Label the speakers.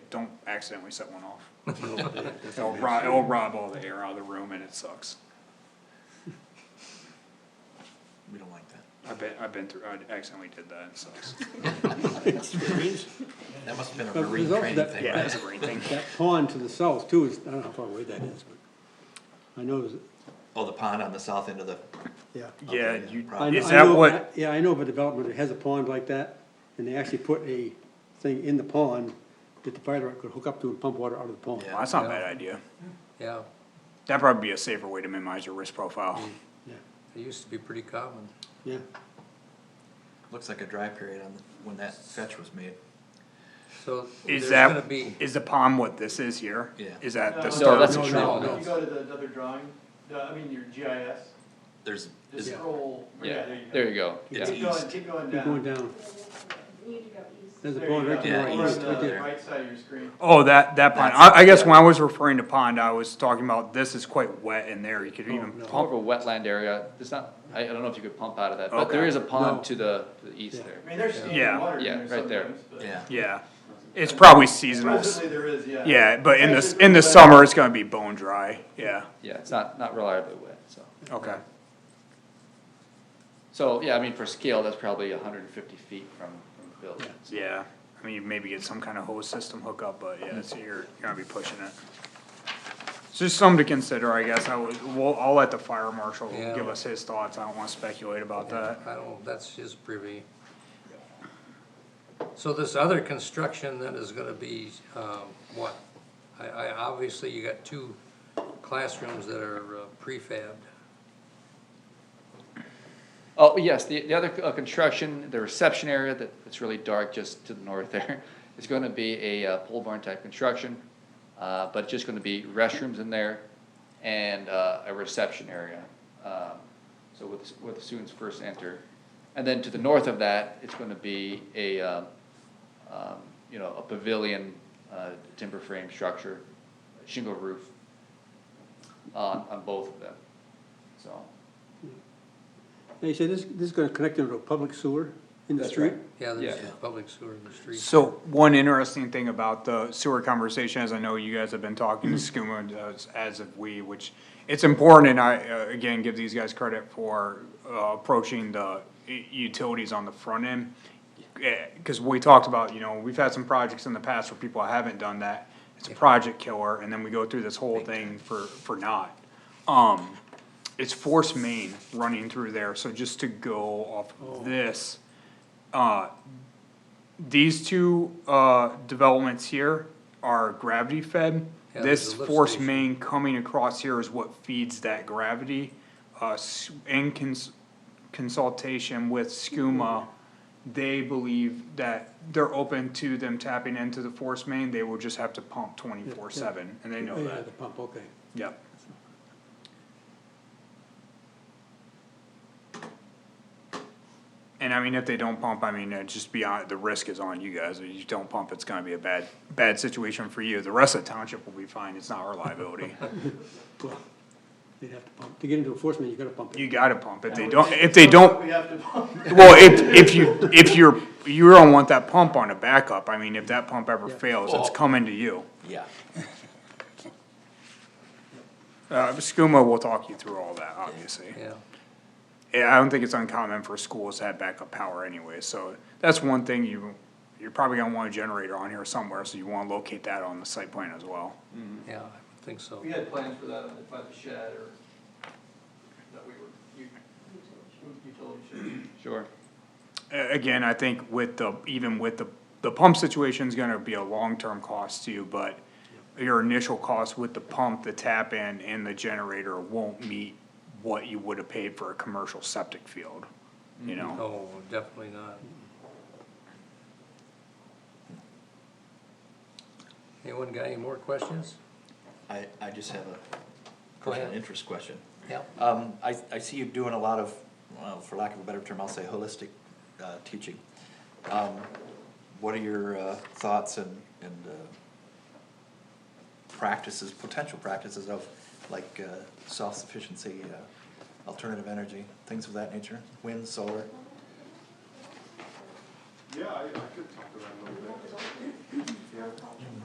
Speaker 1: accidentally set one off. It'll rob, it'll rob all the air out of the room and it sucks.
Speaker 2: We don't like that.
Speaker 1: I've been, I've been through, I accidentally did that, it sucks.
Speaker 2: That must have been a
Speaker 3: But
Speaker 2: marine
Speaker 3: there's al-
Speaker 2: training
Speaker 3: that-
Speaker 2: thing,
Speaker 1: Yeah,
Speaker 2: right?
Speaker 1: that's a great thing.
Speaker 3: That pond to the south too is, I don't know how far away that is, but I know, it's-
Speaker 2: Oh, the pond on the south end of the,
Speaker 3: yeah.
Speaker 1: Yeah,
Speaker 2: Okay,
Speaker 1: you,
Speaker 3: I-
Speaker 2: probably.
Speaker 1: is
Speaker 3: I
Speaker 1: that
Speaker 3: know-
Speaker 1: what,
Speaker 3: Yeah, I know of a development that has a pond like that, and they actually put a thing in the pond that the fire department could hook up to and pump water out of the pond.
Speaker 1: well, that's not a bad idea.
Speaker 4: Yeah,
Speaker 1: That'd probably be a safer way to minimize your risk profile.
Speaker 3: Yeah,
Speaker 4: it used to be pretty common.
Speaker 3: yeah.
Speaker 2: looks like a dry period on, the- when that fetch was made.
Speaker 4: So
Speaker 1: Is
Speaker 4: there's
Speaker 1: that,
Speaker 4: gonna be,
Speaker 1: is the pond what this is here?
Speaker 2: Yeah.
Speaker 1: Is that
Speaker 5: No,
Speaker 1: the
Speaker 6: No,
Speaker 1: start?
Speaker 6: that's a
Speaker 3: No,
Speaker 6: tree.
Speaker 3: no,
Speaker 4: no.
Speaker 5: If you go to the other drawing, the, I mean, your GIS,
Speaker 2: There's,
Speaker 5: just
Speaker 2: is,
Speaker 5: scroll, yeah,
Speaker 6: Yeah,
Speaker 5: there you go.
Speaker 6: there you go, yeah.
Speaker 2: It's
Speaker 5: Keep going,
Speaker 2: east.
Speaker 5: keep going
Speaker 3: Keep going
Speaker 5: down.
Speaker 3: down,
Speaker 7: You need to go east.
Speaker 3: there's a
Speaker 5: There you
Speaker 3: pond right to
Speaker 5: go.
Speaker 3: the
Speaker 2: Yeah,
Speaker 5: Over
Speaker 3: right,
Speaker 2: east
Speaker 3: right
Speaker 5: on the
Speaker 3: there.
Speaker 5: right side of your screen.
Speaker 1: Oh, that, that pond, I, I guess when I was referring to pond, I was talking about this is quite wet in there, you could even
Speaker 3: no.
Speaker 1: pump.
Speaker 6: More of a wetland area, it's not, I, I don't know if you could pump out of that, but there
Speaker 1: Okay.
Speaker 6: is a
Speaker 3: No.
Speaker 6: pond to the, to the east
Speaker 3: Yeah.
Speaker 6: there.
Speaker 5: I mean, there's
Speaker 1: Yeah.
Speaker 5: standing water in
Speaker 6: Yeah,
Speaker 5: there
Speaker 6: right there.
Speaker 5: sometimes, but.
Speaker 2: yeah,
Speaker 1: Yeah, it's probably seasonal. s-
Speaker 5: Presently, there is, yeah.
Speaker 1: Yeah, but in the,
Speaker 5: Actually,
Speaker 1: in the
Speaker 5: it's
Speaker 1: summer, it's gonna be bone dry, yeah,
Speaker 6: Yeah, it's not, not reliably wet, so.
Speaker 1: okay.
Speaker 6: So, yeah, I mean, for scale, that's probably hundred and fifty feet from, from the building. so.
Speaker 1: Yeah, I mean, maybe get some kind of hose system hookup, but yeah, it's, you're, you're gonna be pushing it. It's Just something to consider, I guess, I would, well, I'll let the fire marshal
Speaker 4: Yeah.
Speaker 1: give us his thoughts, I don't wanna speculate about that.
Speaker 4: I don't, that's his privy. So this other construction then is gonna be, um, what? I, I, obviously you got two classrooms that are uh, prefabbed.
Speaker 6: Oh, yes, the, the other uh, construction, the reception area that, that's really dark just to the north there, is gonna be a uh, pole barn type construction. Uh, but just gonna be restrooms in there and, uh, a reception area. um, So where the, where the students first enter. And then to the north of that, it's gonna be a, um, um, you know, a pavilion, uh, timber frame structure, shingle roof on, on both of them, so.
Speaker 3: Now, you said this, this is gonna connect into a public sewer in the
Speaker 6: That's
Speaker 3: street?
Speaker 6: right.
Speaker 4: Yeah, there's
Speaker 6: Yeah.
Speaker 4: public sewer in the street.
Speaker 1: So, one interesting thing about the sewer conversation, as I know you guys have been talking to SCUMA as, as of we, which it's important, and I, uh, again, give these guys credit for, uh, approaching the u- utilities on the front end. Eh, cause we talked about, you know, we've had some projects in the past where people haven't done that, it's a project killer, and then we go through this whole thing for, for not. Um, it's force main running through there, so just to go off
Speaker 4: Oh.
Speaker 1: of this, uh, these two, uh, developments here are gravity fed.
Speaker 4: Yeah, there's
Speaker 1: This
Speaker 4: a lift
Speaker 1: force
Speaker 4: station.
Speaker 1: main coming across here is what feeds that gravity. Uh, s- in cons- consultation with SCUMA, they believe that they're open to them tapping into the force main, they will just have to pump twenty-four seven, and they know
Speaker 3: Yeah,
Speaker 1: that,
Speaker 3: The pump, okay.
Speaker 1: yep. And I mean, if they don't pump, I mean, uh, just be on, the risk is on you guys, if you don't pump, it's gonna be a bad, bad situation for you, the rest of the township will be fine, it's not our liability.
Speaker 3: Well, They'd have to pump, to get into enforcement, you gotta pump it.
Speaker 1: You gotta pump, if they
Speaker 5: That
Speaker 1: don't,
Speaker 5: would-
Speaker 1: if they don't,
Speaker 5: We have to bump.
Speaker 1: Well, if, if you, if you're, you don't want that pump on a backup, I mean, if that pump ever
Speaker 3: Yeah.
Speaker 1: fails, it's
Speaker 2: Oh.
Speaker 1: coming to you.
Speaker 2: yeah.
Speaker 1: Uh, SCUMA will talk you through all that, obviously.
Speaker 4: Yeah,
Speaker 1: Yeah, I don't think it's uncommon for schools to have backup power anyway, so that's one thing you, you're probably gonna want a generator on here somewhere, so you wanna locate that on the site plan as well.
Speaker 4: yeah, I would think so.
Speaker 5: We had plans for that on the, by the shed or that we were, u- utility shed.
Speaker 6: Sure.
Speaker 1: A- again, I think with the, even with the, the pump situation's gonna be a long-term cost to you, but your initial cost with the pump, the tap in, and the generator won't meet what you would have paid for a commercial septic field, you know?
Speaker 4: No, definitely not. Anyone got any more questions?
Speaker 2: I, I just have a
Speaker 4: Go
Speaker 2: personal
Speaker 4: ahead.
Speaker 2: interest question.
Speaker 4: Yep.
Speaker 2: Um, I, I see you doing a lot of, well, for lack of a better term, I'll say holistic, uh, teaching. Um, what are your, uh, thoughts and, and, uh, practices, potential practices of, like, uh, self-sufficiency, uh, alternative energy, things of that nature, wind, solar?
Speaker 8: Yeah, I, I could talk to that a little bit. Yeah.